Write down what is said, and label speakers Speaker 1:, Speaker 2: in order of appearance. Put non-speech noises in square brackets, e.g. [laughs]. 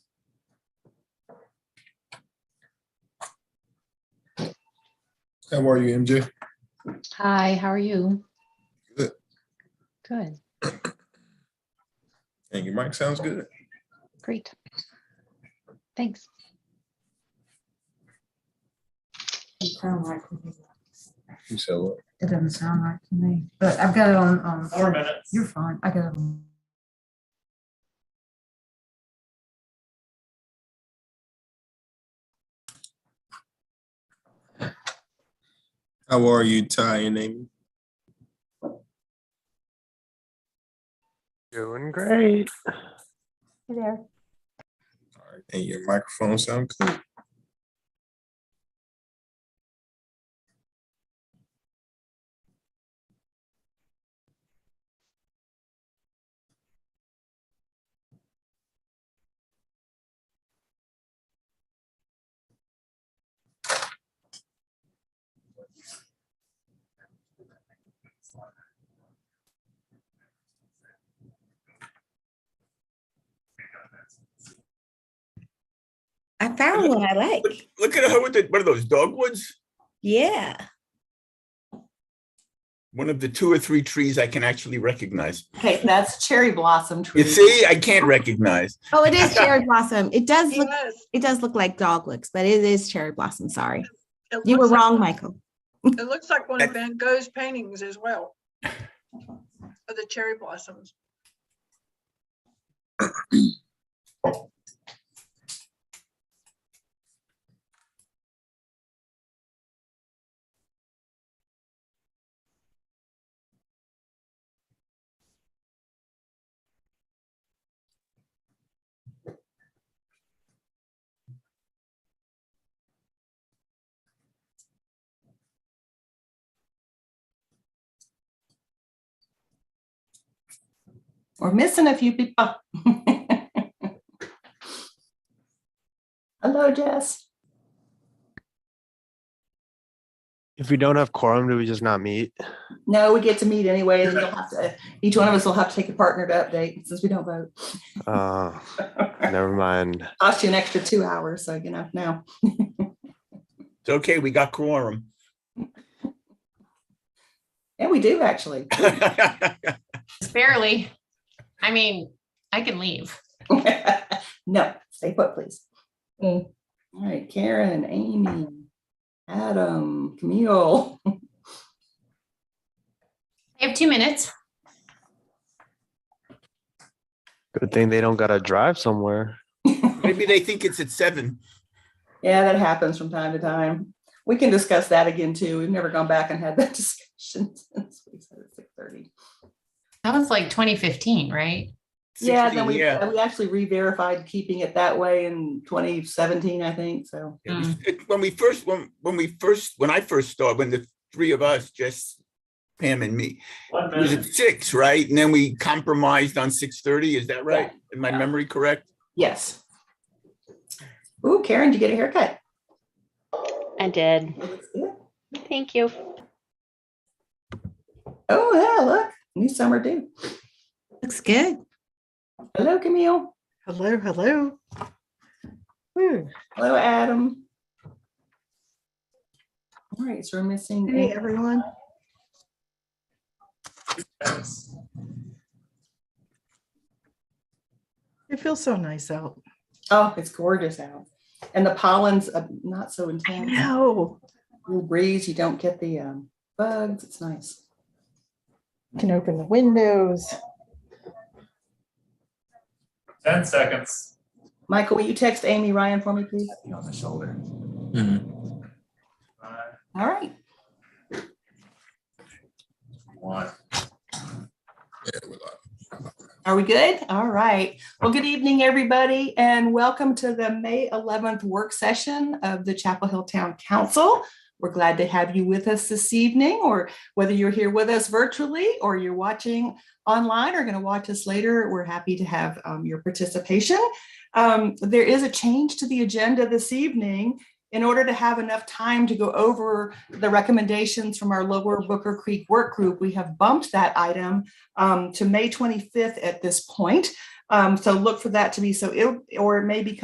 Speaker 1: How are you, MJ?
Speaker 2: Hi, how are you?
Speaker 1: Good.
Speaker 2: Good,
Speaker 1: Thank you, Mike. Sounds good.
Speaker 2: great. Thanks.
Speaker 3: Doesn't sound like me.
Speaker 1: You sell it.
Speaker 3: It doesn't sound like to me, but I've got it on, um,
Speaker 4: Four minutes.
Speaker 3: you're fine. I got it. on-
Speaker 1: How are you, Ty and Amy?
Speaker 5: Doing great.
Speaker 1: All right. And your microphone sound good?
Speaker 6: I found one I like.
Speaker 7: Look- Look at her with the, what are those dogwoods?
Speaker 6: Yeah.
Speaker 7: One of the two or three trees I can actually recognize.
Speaker 8: Okay, that's cherry blossom tree.
Speaker 7: You see, I can't recognize.
Speaker 6: Oh, it is cherry blossom. It does look
Speaker 9: Yes.
Speaker 6: it does look like dog licks, but it is cherry blossom. Sorry.
Speaker 9: It
Speaker 6: You were
Speaker 9: looks like-
Speaker 6: wrong, Michael.
Speaker 9: It looks like one of Van Gogh's paintings as well. Of the cherry blossoms.
Speaker 8: We're missing a few oh. people. [laughs] Hello, Jess.
Speaker 5: If we don't have quorum, do we just not meet?
Speaker 8: No, we get to meet anyway, and you'll have to, each one of us will have to take a partner to update since we don't vote.
Speaker 5: Uh, never mind.
Speaker 8: Cost you an extra two hours, so you know, now.
Speaker 7: It's okay, we got quorum. [laughs]
Speaker 8: And we do actually. [laughs]
Speaker 10: Barely. I mean, I can leave.
Speaker 8: No, stay put, please. All right, Karen, Amy, Adam, Camille. [laughs]
Speaker 10: I have two minutes.
Speaker 5: Good thing they don't gotta drive somewhere.
Speaker 7: Maybe they think it's at seven.
Speaker 8: Yeah, that happens from time to time. We can discuss that again too. We've never gone back and had that [laughs] discussion since we said it's six thirty.
Speaker 10: That was like 2015, right?
Speaker 8: Yeah,
Speaker 7: 16,
Speaker 8: then we,
Speaker 7: yeah.
Speaker 8: we actually re-verified keeping it that way in twenty seventeen, I think, so.
Speaker 7: It was-
Speaker 4: Hmm.
Speaker 7: it- When we first, when, when we first, when I first started, when the three of us, Jess, Pam and me,
Speaker 4: One
Speaker 7: it was at
Speaker 4: minute.
Speaker 7: six, right? And then we compromised on six thirty, is that right? Am my memory correct?
Speaker 8: Yes. Ooh, Karen, did you get a haircut?
Speaker 11: I did.
Speaker 8: Looks good.
Speaker 11: Thank you.
Speaker 8: Oh, yeah, look, new summer do.
Speaker 6: Looks good.
Speaker 8: Hello, Camille.
Speaker 9: Hello, hello.
Speaker 8: Hello, Adam. All right, so we're missing.
Speaker 9: everyone. It feels so nice out.
Speaker 8: Oh, it's gorgeous out. And the pollen's uh, not so intense.
Speaker 6: Oh.
Speaker 9: No.
Speaker 8: Little breeze, you don't get the um, bugs. It's nice.
Speaker 3: Can open the windows.
Speaker 4: Ten seconds.
Speaker 8: Michael, will you text Amy Ryan for me, please?
Speaker 4: On the shoulder. Five,
Speaker 8: All right.
Speaker 4: one.
Speaker 1: Yeah, we're live.
Speaker 8: Are we good? All right. Well, good evening, everybody, and welcome to the May 11th work session of the Chapel Hill Town Council. We're glad to have you with us this evening, or whether you're here with us virtually or you're watching online or going to watch us later, we're happy to have um, your participation. Um, there is a change to the agenda this evening. In order to have enough time to go over the recommendations from our Lower Booker Creek Work Group, we have bumped that item um, to May 25th at this point. Um, so look for that to be so, it or it may become.